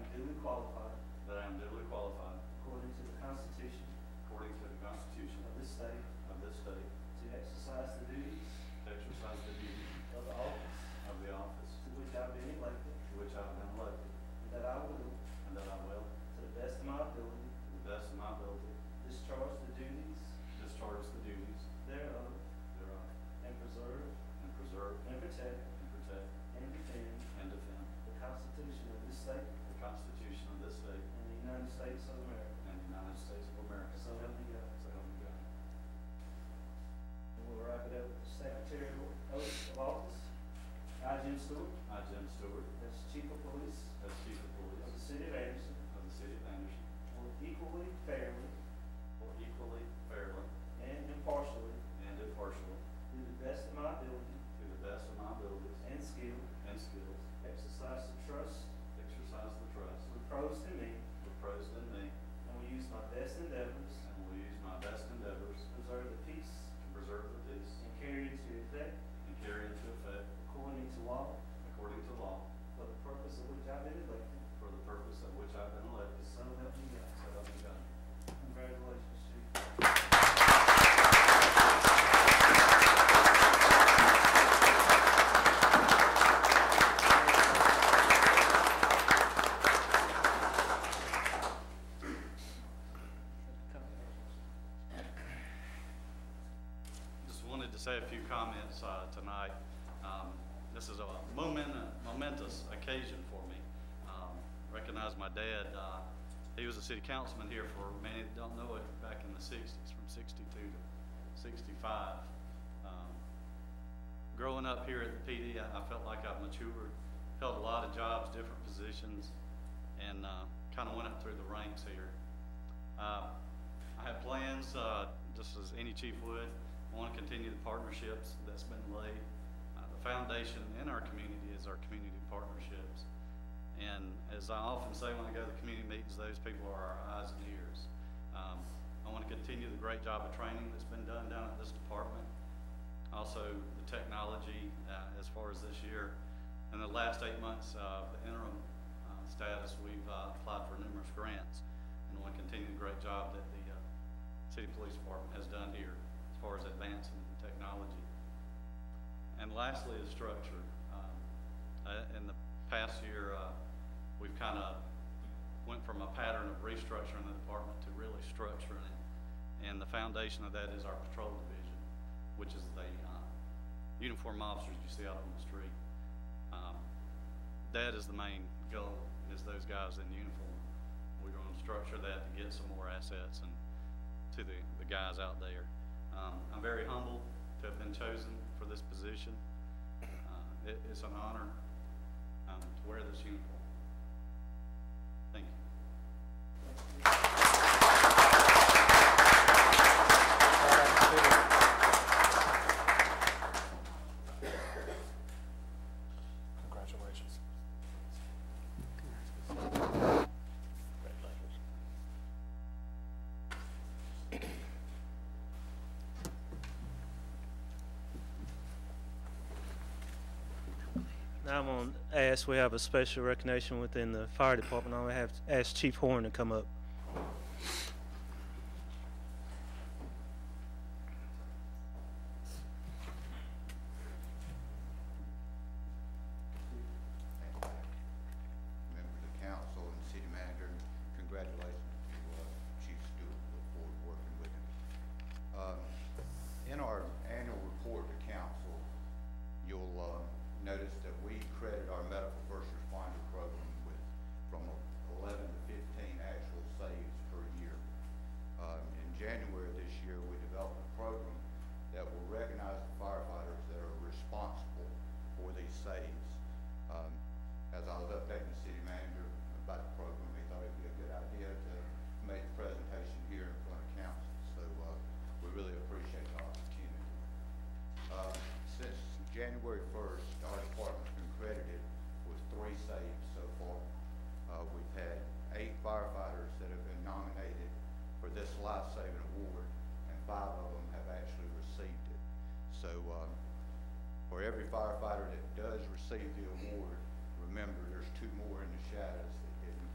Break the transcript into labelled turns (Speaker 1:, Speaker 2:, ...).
Speaker 1: qualified
Speaker 2: that I am duly qualified
Speaker 1: according to the Constitution
Speaker 2: according to the Constitution
Speaker 1: of this state
Speaker 2: of this state
Speaker 1: to exercise the duties
Speaker 2: to exercise the duties
Speaker 1: of the office
Speaker 2: of the office
Speaker 1: to which I've been elected,
Speaker 2: to which I have been elected
Speaker 1: and that I will,
Speaker 2: and that I will,
Speaker 1: to the best of my ability,
Speaker 2: to the best of my ability,
Speaker 1: discharge the duties
Speaker 2: discharge the duties
Speaker 1: thereof,
Speaker 2: thereof
Speaker 1: and preserve,
Speaker 2: and preserve
Speaker 1: and protect,
Speaker 2: and protect
Speaker 1: and defend
Speaker 2: and defend
Speaker 1: the Constitution of this state
Speaker 2: the Constitution of this state
Speaker 1: and the United States of America.
Speaker 2: and the United States of America.
Speaker 1: So help me God.
Speaker 2: So help me God.
Speaker 1: And we'll wrap it up with the secretarial oath of office. I, Jim Stewart,
Speaker 2: I, Jim Stewart,
Speaker 1: as Chief of Police
Speaker 2: as Chief of
Speaker 1: of the
Speaker 2: Police
Speaker 1: City of Anderson,
Speaker 2: of the City of Anderson,
Speaker 1: will equally, fairly,
Speaker 2: will equally, fairly,
Speaker 1: and impartially,
Speaker 2: and impartially,
Speaker 1: to the best of my ability
Speaker 2: to the best of my abilities
Speaker 1: and skill,
Speaker 2: and skills,
Speaker 1: exercise the trust
Speaker 2: exercise the trust
Speaker 1: reposed in me,
Speaker 2: reposed in me,
Speaker 1: and will use my best endeavors
Speaker 2: and will use my best endeavors
Speaker 1: to preserve the peace
Speaker 2: to preserve the peace
Speaker 1: and carry it to effect
Speaker 2: and carry into effect,
Speaker 1: according to law
Speaker 2: according to law,
Speaker 1: for the purpose of which I've been elected.
Speaker 2: for the purpose of which I've been elected.
Speaker 1: So help me God.
Speaker 2: So help me God.
Speaker 1: Congratulations, Chief.
Speaker 2: Just wanted to say a few comments uh, tonight. Um, This is a momen- momentous occasion for me. Um, Recognize my dad, uh, he was a city councilman here for, many that don't know it, back in the 60s, from 62 to 65. Um, Growing up here at the PD, I I felt like I've matured, held a lot of jobs, different positions, and kind of went up through the ranks here. Uh, I have plans, uh, just as any chief would, I want to continue the partnerships that's been laid. Uh, The foundation in our community is our community partnerships. And as I often say when I go to the community meetings, those people are our eyes and ears. Um, I want to continue the great job of training that's been done down at this department. Also, the technology uh, as far as this year. In the last eight months, uh, the interim uh, status, we've uh, applied for numerous grants and want to continue the great job that the uh, city police department has done here as far as advancing in technology. And lastly, is structure. Um, uh, In the past year, uh, we've kind of went from a pattern of restructuring the department to really structuring it. And the foundation of that is our patrol division, which is the uh, uniformed officers you see out on the street. Um, that is the main goal, is those guys in uniform. We're gonna structure that to get some more assets and to the, the guys out there. Um, I'm very humbled to have been chosen for this position. Uh, it, it's an honor, um, to wear this uniform. Thank you.
Speaker 3: Congratulations.
Speaker 4: Now I'm going to ask, we have a special recognition within the fire department. I'm going to have to ask Chief Horn to come up.
Speaker 5: members of council and city manager, congratulations to uh, Chief Stewart, look forward to working with him. Um, In our annual report to council, you'll uh, notice that we credit our medical first responder program with from eleven to fifteen actual saves per year. Um, In January of this year, we developed a program that will recognize firefighters that are responsible for these saves. Um, As I was updating the city manager about the program, he thought it'd be a good idea to make the presentation here in front of council. So uh, we really appreciate the opportunity. Uh, Since January first, our department's been credited with three saves so far. Uh, We've had eight firefighters that have been nominated for this life-saving award, and five of them have actually received it. So um, for every firefighter that does receive the award, remember, there's two more in the shadows that